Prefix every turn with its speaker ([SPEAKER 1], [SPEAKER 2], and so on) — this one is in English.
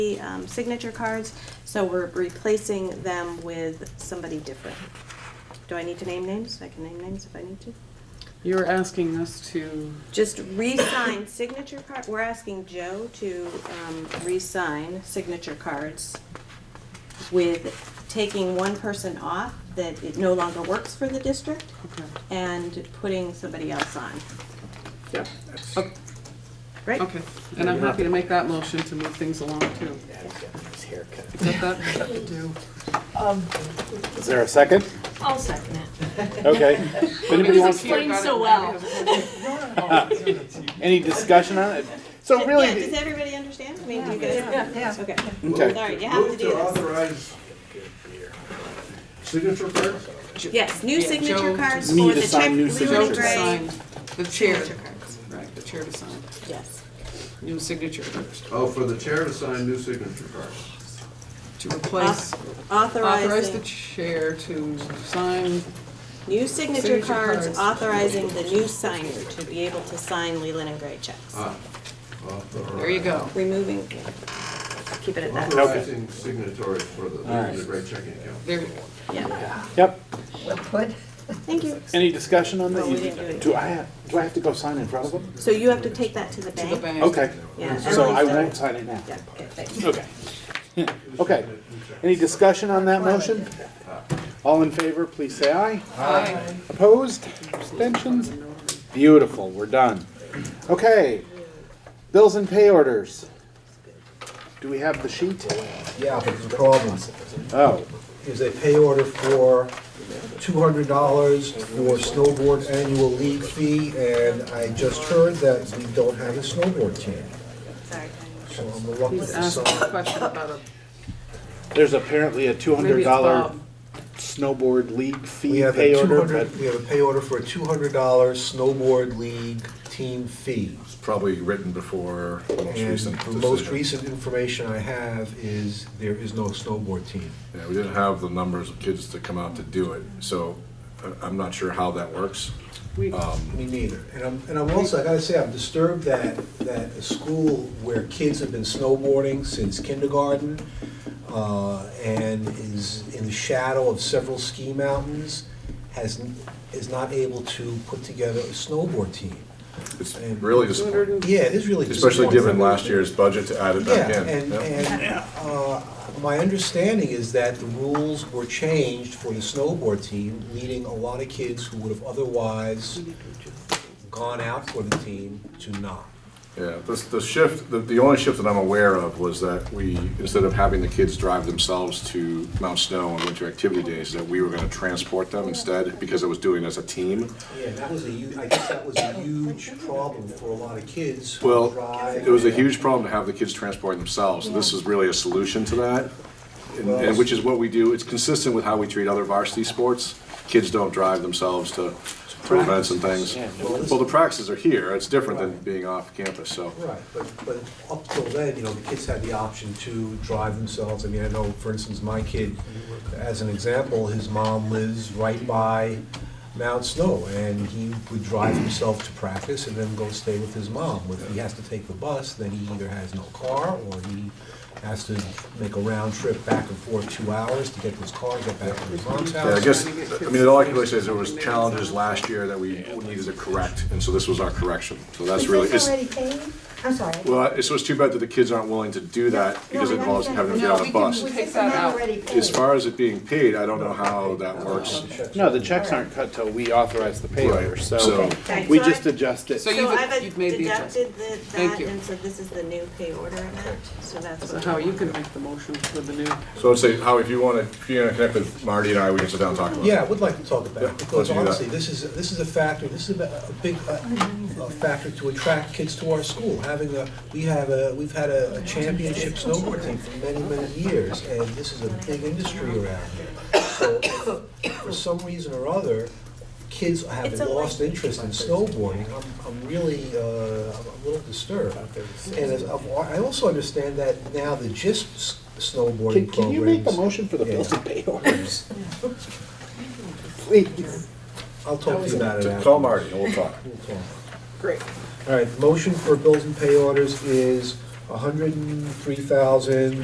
[SPEAKER 1] the, um, signature cards, so we're replacing them with somebody different. Do I need to name names? I can name names if I need to.
[SPEAKER 2] You're asking us to,
[SPEAKER 1] Just re-sign signature card, we're asking Joe to, um, re-sign signature cards with taking one person off that it no longer works for the district
[SPEAKER 2] okay,
[SPEAKER 1] and putting somebody else on,
[SPEAKER 2] yeah,
[SPEAKER 1] right?
[SPEAKER 2] okay. And I'm happy to make that motion to move things along too. Is that that?
[SPEAKER 3] Is there a second?
[SPEAKER 4] I'll second it.
[SPEAKER 3] Okay. If anybody
[SPEAKER 4] It was
[SPEAKER 3] wants,
[SPEAKER 4] explained so well.
[SPEAKER 3] any discussion on it? So
[SPEAKER 1] Yeah, does
[SPEAKER 3] really,
[SPEAKER 1] everybody understand? I mean, do you guys?
[SPEAKER 4] Yeah.
[SPEAKER 1] Okay,
[SPEAKER 3] okay,
[SPEAKER 1] sorry, you have to do
[SPEAKER 5] Move to
[SPEAKER 1] this.
[SPEAKER 5] authorize signature cards?
[SPEAKER 1] Yes, new
[SPEAKER 2] Yeah,
[SPEAKER 1] signature
[SPEAKER 2] Joe
[SPEAKER 1] cards
[SPEAKER 3] to- We need
[SPEAKER 1] for
[SPEAKER 3] to
[SPEAKER 1] the
[SPEAKER 3] sign
[SPEAKER 1] check
[SPEAKER 3] new
[SPEAKER 1] blue
[SPEAKER 2] Joe
[SPEAKER 1] and
[SPEAKER 2] to
[SPEAKER 1] gray.
[SPEAKER 2] sign, the chair,
[SPEAKER 1] cards.
[SPEAKER 2] right, the chair to sign,
[SPEAKER 1] Yes.
[SPEAKER 2] new signature
[SPEAKER 5] Oh, for the chair to sign new signature cards.
[SPEAKER 2] to replace, authorize the
[SPEAKER 1] Authorizing,
[SPEAKER 2] chair to sign,
[SPEAKER 1] new signature
[SPEAKER 2] signature
[SPEAKER 1] cards,
[SPEAKER 2] cards.
[SPEAKER 1] authorizing the new signer to be able to sign Leland and Gray checks.
[SPEAKER 5] Ah,
[SPEAKER 2] there you go.
[SPEAKER 1] Removing, keep it at that,
[SPEAKER 5] Authorizing signatories for the, the great checking account.
[SPEAKER 2] There,
[SPEAKER 1] yeah.
[SPEAKER 3] yep.
[SPEAKER 1] Thank you.
[SPEAKER 3] Any discussion on
[SPEAKER 1] No, we didn't do
[SPEAKER 3] that?
[SPEAKER 1] it.
[SPEAKER 3] Do I, have- do I have to go sign in front of them?
[SPEAKER 1] So you have to take that to the
[SPEAKER 2] to the
[SPEAKER 1] bank?
[SPEAKER 2] bank.
[SPEAKER 3] Okay,
[SPEAKER 1] Yeah,
[SPEAKER 3] so I
[SPEAKER 1] Emily's done
[SPEAKER 3] won't
[SPEAKER 1] it.
[SPEAKER 3] sign it now.
[SPEAKER 1] Yeah, okay, thanks.
[SPEAKER 3] Okay. Okay. Any discussion on that motion? All in favor, please say aye.
[SPEAKER 2] Aye.
[SPEAKER 3] Opposed? Abstentions? Beautiful, we're done. Okay, bills and pay orders. Do we have the sheet?
[SPEAKER 6] Yeah, but there's a problem.
[SPEAKER 3] Oh,
[SPEAKER 6] There's a pay order for two hundred dollars for snowboard annual league fee, and I just heard that we don't have a snowboard team.
[SPEAKER 1] Sorry.
[SPEAKER 6] So I'm reluctant
[SPEAKER 2] He's
[SPEAKER 6] to
[SPEAKER 2] asking a
[SPEAKER 6] sign.
[SPEAKER 2] question about a,
[SPEAKER 3] there's apparently a two
[SPEAKER 2] maybe
[SPEAKER 3] hundred
[SPEAKER 2] it's
[SPEAKER 3] dollar
[SPEAKER 2] Bob.
[SPEAKER 3] snowboard league
[SPEAKER 6] We
[SPEAKER 3] fee
[SPEAKER 6] have
[SPEAKER 3] pay
[SPEAKER 6] a two
[SPEAKER 3] order, but
[SPEAKER 6] hundred, we have a pay order for a two hundred dollar snowboard league team fee.
[SPEAKER 7] It's probably written before the most
[SPEAKER 6] And
[SPEAKER 7] recent
[SPEAKER 6] the
[SPEAKER 7] decision.
[SPEAKER 6] most recent information I have is there is no snowboard team.
[SPEAKER 7] Yeah, we didn't have the numbers of kids to come out to do it, so I- I'm not sure how that works.
[SPEAKER 2] we,
[SPEAKER 6] Me neither. And I'm, and I'm also, I gotta say, I'm disturbed that, that a school where kids have been snowboarding since kindergarten, uh, and is in the shadow of several ski mountains, has, n- is not able to put together a snowboard team.
[SPEAKER 7] It's really disappointing,
[SPEAKER 6] Yeah, it is really
[SPEAKER 7] especially given
[SPEAKER 6] disappointing.
[SPEAKER 7] last year's budget to add it back
[SPEAKER 6] Yeah,
[SPEAKER 7] in.
[SPEAKER 6] and,
[SPEAKER 7] Yep.
[SPEAKER 6] and, uh, my understanding is that the rules were changed for the snowboard team, leading a lot of kids who would have otherwise gone out for the team to not.
[SPEAKER 7] Yeah, this, the shift, the, the only shift that I'm aware of was that we, instead of having the kids drive themselves to Mount Snow on winter activity days, that we were gonna transport them instead, because it was doing it as a team.
[SPEAKER 6] Yeah, that was a hu, I guess that was a huge problem for a lot of kids who
[SPEAKER 7] Well,
[SPEAKER 6] drive.
[SPEAKER 7] it was a huge problem to have the kids transporting themselves, and this is really a solution to that. And, and which is what we do, it's consistent with how we treat other varsity sports. Kids don't drive themselves to, to events and things. Well, the practices are here, it's different than being off campus, so.
[SPEAKER 6] Right, but, but up till then, you know, the kids had the option to drive themselves. I mean, I know, for instance, my kid, as an example, his mom lives right by Mount Snow, and he would drive himself to practice and then go stay with his mom. If he has to take the bus, then he either has no car, or he has to make a round trip back and forth two hours to get to his car, get back to his mom's
[SPEAKER 7] Yeah, I
[SPEAKER 6] house.
[SPEAKER 7] guess, I mean, all I can really say is there was challenges last year that we needed to correct, and so this was our correction. So that's really,
[SPEAKER 8] Is
[SPEAKER 7] it's,
[SPEAKER 8] this already paid? I'm sorry.
[SPEAKER 7] well, it's just too bad that the kids aren't willing to do that because it involves having to get on a bus.
[SPEAKER 8] Was
[SPEAKER 2] Take
[SPEAKER 8] this
[SPEAKER 2] that
[SPEAKER 8] amount
[SPEAKER 2] out.
[SPEAKER 8] already
[SPEAKER 7] As
[SPEAKER 8] paid?
[SPEAKER 7] far as it being paid, I don't know how that works.
[SPEAKER 3] no, the checks aren't cut till we authorize the pay
[SPEAKER 7] Right,
[SPEAKER 3] order,
[SPEAKER 7] so-
[SPEAKER 3] so
[SPEAKER 1] Okay,
[SPEAKER 3] we
[SPEAKER 1] so
[SPEAKER 3] just
[SPEAKER 1] I-
[SPEAKER 3] adjust it.
[SPEAKER 2] So you-
[SPEAKER 1] So
[SPEAKER 2] you've-
[SPEAKER 1] I've
[SPEAKER 2] you've made the
[SPEAKER 1] deducted
[SPEAKER 2] adjustment.
[SPEAKER 1] the,
[SPEAKER 2] Thank
[SPEAKER 1] that,
[SPEAKER 2] you.
[SPEAKER 1] and so this is the new pay order amount, so that's
[SPEAKER 2] so
[SPEAKER 1] what.
[SPEAKER 2] how you can make the motion for the new,
[SPEAKER 7] So I'd say, Howie, if you want to, if you're going to connect with Marty and I, we can sit down and talk about it.
[SPEAKER 6] Yeah, I would like to talk about
[SPEAKER 7] Yeah,
[SPEAKER 6] it, because
[SPEAKER 7] let's do that.
[SPEAKER 6] honestly, this is, this is a factor, this is a a big, uh, a factor to attract kids to our school. Having a, we have a, we've had a a championship snowboard team for many, many years, and this is a big industry around here. So, if for some reason or other, kids have
[SPEAKER 1] It's a
[SPEAKER 6] lost interest in snowboarding, I'm, I'm really, uh, I'm a little disturbed. And as- I also understand that now the GISP s-
[SPEAKER 3] Can,
[SPEAKER 6] snowboarding programs.
[SPEAKER 3] can you make the motion for the
[SPEAKER 6] Yeah.
[SPEAKER 3] bills and pay orders? Please.
[SPEAKER 6] I'll talk to you about it
[SPEAKER 7] To
[SPEAKER 6] afterwards.
[SPEAKER 7] Call Marty and we'll talk.
[SPEAKER 6] We'll talk.
[SPEAKER 3] Great.
[SPEAKER 6] All right, motion for bills and pay orders is hundred and three thousand,